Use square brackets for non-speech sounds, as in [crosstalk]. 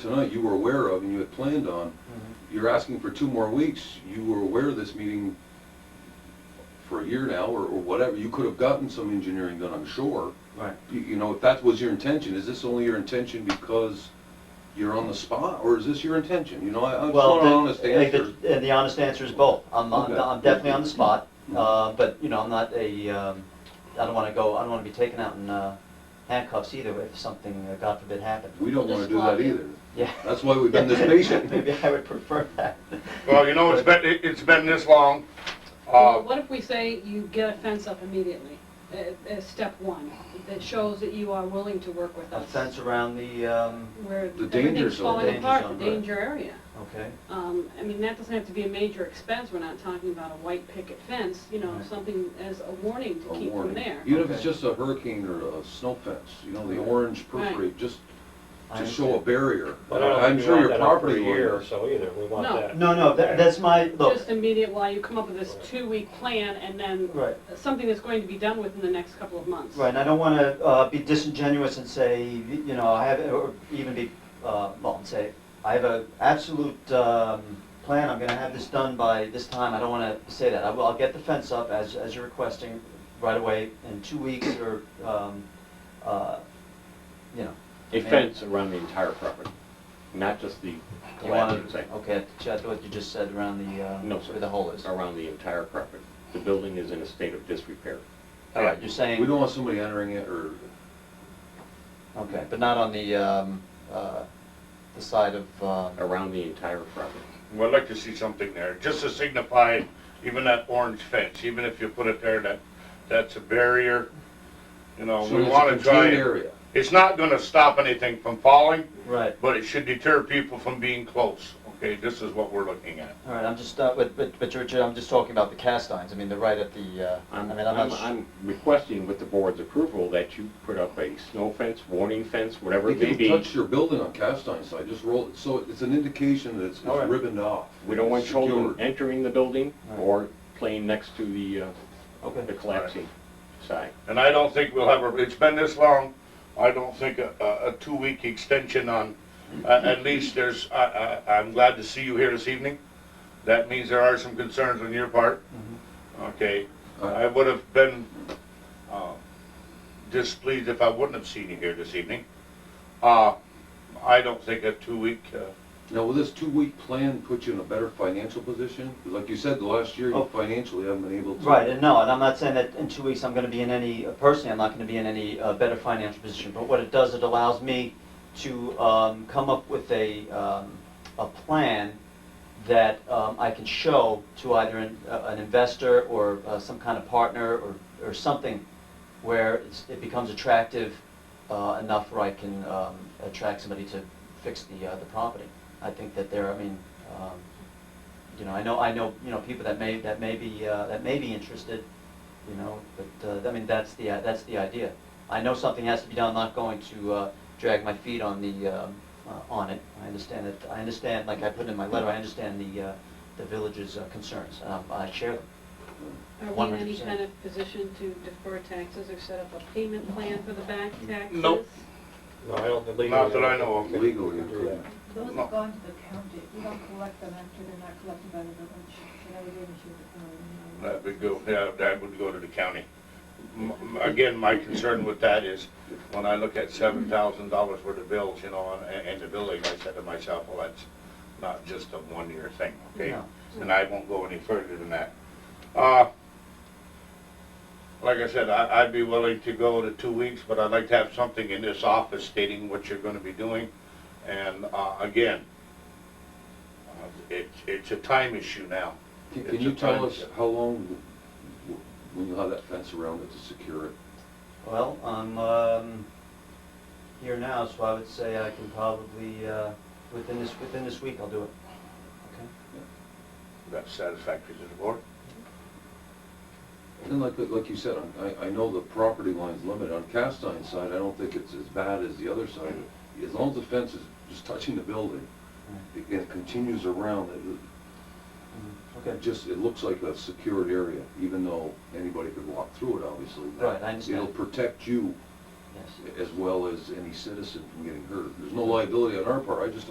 tonight you were aware of and you had planned on, you're asking for two more weeks, you were aware of this meeting for a year now, or, or whatever, you could have gotten some engineering done, I'm sure. Right. You, you know, if that was your intention, is this only your intention because you're on the spot, or is this your intention? You know, I, I just Well, want an the- honest like the- answer. And the honest answer is both. I'm, I'm Okay. Mm-hmm. I'm definitely on the spot, uh, but, you know, I'm not a, um, I don't wanna go, I don't wanna be taken out in uh, handcuffs either if something, uh, God forbid, happened. We don't wanna do that either. Yeah. That's why we've [laughs] been [laughs] this patient. Maybe I would prefer that. Well, you know, it's been, it- it's been this long. Uh, Well, What if we say you get a fence up immediately, uh, uh, step one, that shows that you are willing to work with A us? fence around the, um, Where The danger everything's zone. falling Danger apart, zone, the right. danger area. okay, Um, I mean, that doesn't have to be a major expense, we're not talking about a white picket fence, you know, Right. something as a warning A to keep them warning. there. Even if it's Okay. just a hurricane or a snow fence, you know, the Right. orange Right. perforate, just I to show a barrier. But I don't think I'm we sure want your that up for property A year or lawyer. so either, we want No. that. No, no, that, that's my, look, Just immediate while you come up with this two-week plan and then right. something that's going to be done within the next couple of months. Right, and I don't want to be disingenuous and say, you know, I have, or even be, uh, well, and say, I have an absolute um, plan, I'm going to have this done by this time, I don't want to say that. I will, I'll get the fence up as, as you're requesting right away in two weeks or, um, uh, you know. A fence around the entire property, not just the You want collapsing to, section, okay, I thought what you just said around the, uh, No, sir. where the hole is. All around the entire property. The building is in a state of disrepair. right, you're saying. We don't want somebody entering it or Okay, but not on the, um, uh, the side of, um, Around the entire property. We'd like to see something there, just to signify even that orange fence, even if you put it there, that, that's a barrier. You know, So we it's a wanna contained try, area. it's not gonna stop anything from falling, right. but it should deter people from being close. Okay, this is what we're looking at. All right, I'm just, uh, but, but, but Richard, I'm just talking about the cast irons, I mean, they're right at the, uh, I I'm, mean, I'm I'm, not, I'm requesting with the board's approval that you put up a snow fence, warning fence, whatever it may If you be. touch your building on cast iron side, just roll it, so it's an indication that it's it's All right. ribboned off. We don't want children Secured. entering the building Right. or playing next to the, uh, sure. the okay, collapsing side. And I don't think we'll have, a. it's been this long, I don't think a, a, a two-week extension on, a- at least there's, I, I, I'm glad to see you here this evening. That means there are some concerns on your part. Mm-hmm. Okay, I would have been, uh, displeased if I wouldn't have seen you here this evening. Uh, I don't think a two-week, uh, Now, will this two-week plan put you in a better financial position? Like you said, the last year, Oh. you financially haven't been able to. right, and no, and I'm not saying that in two weeks I'm gonna be in any, personally, I'm not gonna be in any, uh, better financial position, but what it does, it allows me to, um, come up with a, um, a plan that, um, I can show to either an, uh, an investor or, uh, some kind of partner or, or something where it's, it becomes attractive uh, enough where I can um, attract somebody to fix the, uh, the property. I think that there, I mean, um, you know, I know, I know, you know, people that may, that may be, uh, that may be interested, you know, but, uh, I mean, that's the, uh, that's the idea. I know something has to be done, I'm not going to uh, drag my feet on the, um, uh, on it. I understand it, I understand, like I put in my letter, I understand the, uh, the village's uh, concerns, and I I share them. Are we in any 100%. kind of position to defer taxes or set up a payment plan for the back taxes? Nope. No, I don't believe. Not that I know of. Legally, We you can do couldn't. that. Those No. have gone to the county, we don't collect them after they're not collected by the village, and I would issue, um, that would go, yeah, that would go to the county. M- m- Again, my concern with that is, when I look at seven thousand dollars worth of bills, you know, and, and the building, I said to myself, well, that's not just a one-year thing, okay? No. And I won't go any further than that. Uh, like I said, I, I'd be willing to go to two weeks, but I'd like to have something in this office stating what you're gonna be doing. And, uh, again, uh, it's, it's a time issue now. Can- It's Can you a tell time us shift. how long, w- w- when you'll have that fence around it to secure it? Well, I'm um, here now, so I would say I can probably, uh, within this, within this week, I'll do it. Okay. That's satisfactory to the board. And like, like you said, on- I, I know the property line's limited. On cast iron side, I don't think it's as bad as the other side. As long as the fence is just touching the building, it- it continues around, it- Mhm. it Okay, just, it looks like a secured area, even though anybody could walk through it, obviously. Right, I understand. It'll protect you yes. as well as any citizen from getting hurt. There's no liability on our part, I just